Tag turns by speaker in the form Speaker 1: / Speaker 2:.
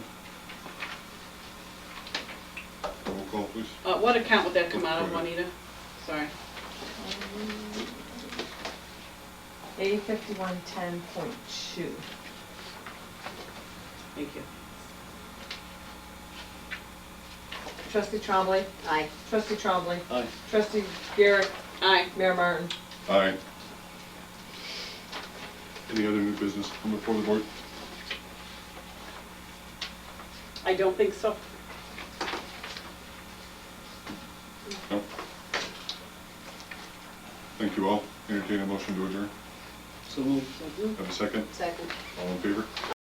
Speaker 1: Uh, what account would that come out of, Juanita? Sorry.
Speaker 2: Um, A fifty-one ten point two.
Speaker 1: Thank you.
Speaker 2: Trustee Trombley.
Speaker 3: Aye.
Speaker 2: Trustee Trombley.
Speaker 4: Aye.
Speaker 2: Trustee Garrett.
Speaker 1: Aye.
Speaker 2: Mayor Martin.
Speaker 5: Aye. Any other new business come before the board?
Speaker 1: I don't think so.
Speaker 5: No? Thank you all. Entertain a motion to adjourn.
Speaker 4: So moved.
Speaker 5: Have a second?
Speaker 3: Second.
Speaker 5: All in favor?